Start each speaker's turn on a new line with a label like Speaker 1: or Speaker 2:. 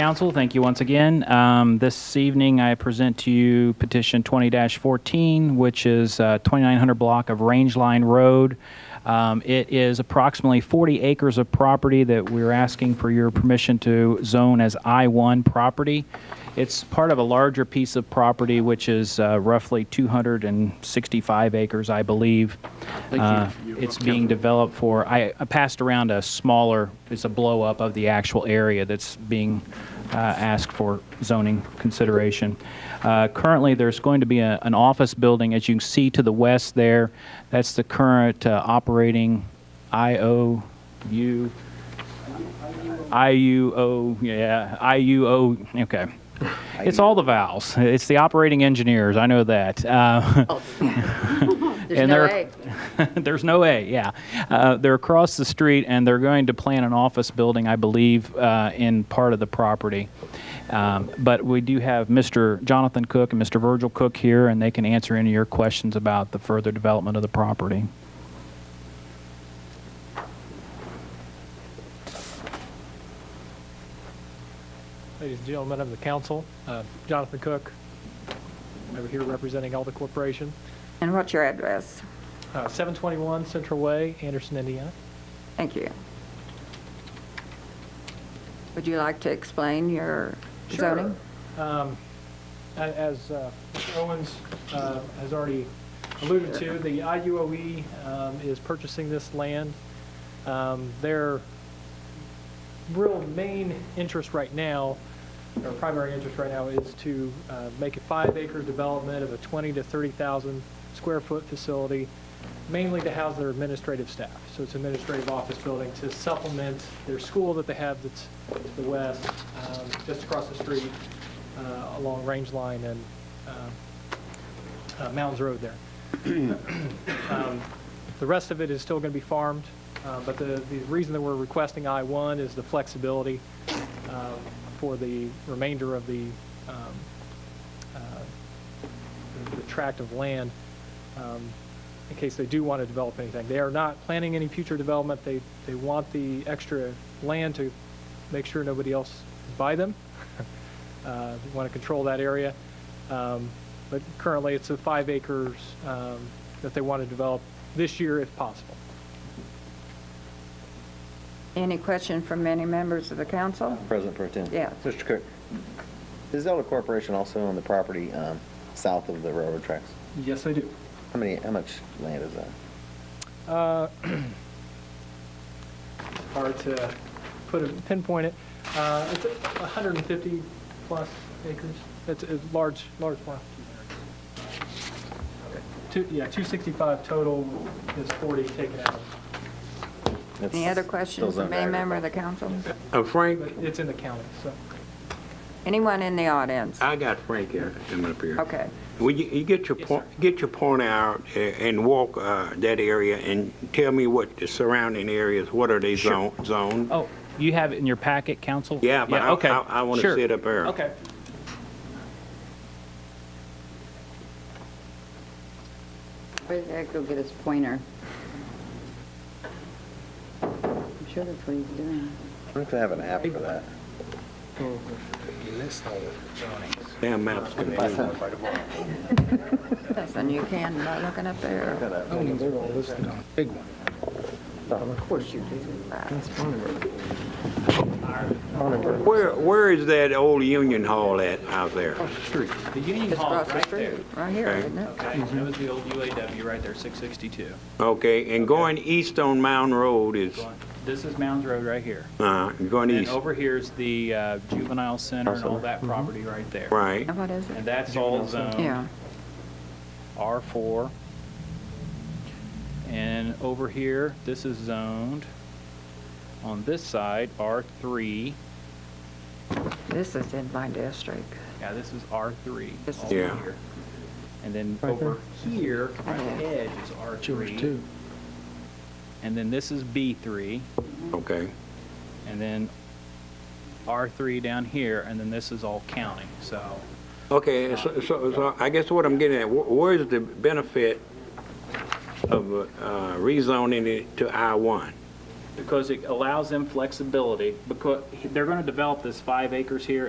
Speaker 1: Council, thank you once again. Um, This evening, I present to you petition 20-14, which is uh, 2900 block of Range Line Road. Um, It is approximately 40 acres of property that we're asking for your permission to zone as I-1 property. It's part of a larger piece of property, which is uh, roughly 265 acres, I believe. Uh, It's being developed for, I I passed around a smaller, it's a blow-up of the actual area that's being uh, asked for zoning consideration. Uh, Currently, there's going to be a- an office building, as you can see to the west there. That's the current uh, operating IOU, IUO, yeah, IUO, okay. It's all the vowels. It's the operating engineers, I know that. Uh,
Speaker 2: There's
Speaker 1: And
Speaker 2: no
Speaker 1: there-
Speaker 2: way.
Speaker 1: There's no way, yeah. Uh, they're across the street and they're going to plan an office building, I believe, uh, in part of the property. Um, but we do have Mr. Jonathan Cook and Mr. Virgil Cook here, and they can answer any of your questions about the further development of the property.
Speaker 3: Ladies and gentlemen of the council, uh, Jonathan Cook, over here representing Alta Corporation,
Speaker 2: And what's your address?
Speaker 3: uh, 721 Central Way, Anderson, Indiana.
Speaker 2: Thank you. Would you like to explain your zoning?
Speaker 3: Um, A- As uh, Mr. Owens uh, has already alluded to, the IUOE um, is purchasing this land. Um, Their real main interest right now, or primary interest right now, is to uh, make a five-acre development of a 20 to 30,000 square foot facility, mainly to house their administrative staff. So it's an administrative office building to supplement their school that they have that's to the west, um, just across the street, uh, along Range Line and uh, uh, Mounds Road there. Um, The rest of it is still going to be farmed, uh, but the, the reason that we're requesting I-1 is the flexibility um, for the remainder of the, um, uh, the- the tract of land um, in case they do want to develop anything. They are not planning any future development. They, they want the extra land to make sure nobody else buy them. Uh, They want to control that area. Um, But currently, it's a five acres um, that they want to develop this year if possible.
Speaker 2: Any question from any members of the council?
Speaker 4: President Pro Tem.
Speaker 2: Yeah.
Speaker 4: Mr. Cook, is Delta Corporation also on the property um, south of the railroad tracks?
Speaker 3: Yes, they do.
Speaker 4: How many, how much land is that?
Speaker 3: Uh, Hard to put a pinpoint it. Uh, It's 150 plus acres. It's a large, large farm. Two, yeah, 265 total is 40 taken out.
Speaker 4: It's
Speaker 2: Any other
Speaker 4: still
Speaker 2: questions from
Speaker 4: zoned
Speaker 2: any member of
Speaker 4: agriculture.
Speaker 2: the council?
Speaker 5: Oh, Frank,
Speaker 3: But It's in the county, so.
Speaker 2: Anyone in the audience?
Speaker 5: I got Frank here, him up here.
Speaker 2: Okay,
Speaker 5: Will you, you get your
Speaker 3: Yes,
Speaker 5: point, get your point out a- and walk uh, that area and tell me what the surrounding areas, what are they zone- zoned?
Speaker 1: Oh, you have it in your packet, Council?
Speaker 5: Yeah, but I-
Speaker 1: okay.
Speaker 5: I, I want to
Speaker 1: Sure.
Speaker 5: see it up there.
Speaker 3: Okay.
Speaker 6: Where did Eric go get his pointer? I'm sure that's what he's doing.
Speaker 4: I think they have an app for that.
Speaker 5: Damn maps.
Speaker 4: If I send it right tomorrow.
Speaker 2: then you can, by looking up there.
Speaker 4: Got a-
Speaker 5: Where, where is that old Union Hall at out there?
Speaker 1: The Union
Speaker 2: Just across the street, right here,
Speaker 5: Okay.
Speaker 2: isn't it?
Speaker 1: That was the old UAW right there, 662.
Speaker 5: Okay, and going east on Mound Road is,
Speaker 1: This is Mounds Road right here.
Speaker 5: uh, going
Speaker 1: And
Speaker 5: east,
Speaker 1: over here's the uh, juvenile center and all that property right there.
Speaker 5: right?
Speaker 2: And what is
Speaker 1: And
Speaker 2: it?
Speaker 1: that's all zoned.
Speaker 2: Yeah,
Speaker 1: R4. And over here, this is zoned. On this side, R3.
Speaker 2: this is in my district.
Speaker 1: Yeah, this is R3.
Speaker 2: This is-
Speaker 1: all over
Speaker 5: Yeah.
Speaker 1: here. And then over here, right edge is R3. And then this is B3,
Speaker 5: Okay,
Speaker 1: and then R3 down here, and then this is all county, so.
Speaker 5: okay, so, so, so I guess what I'm getting at, wh- where is the benefit of uh, rezoning it to I-1?
Speaker 1: because it allows them flexibility, because they're going to develop this five acres here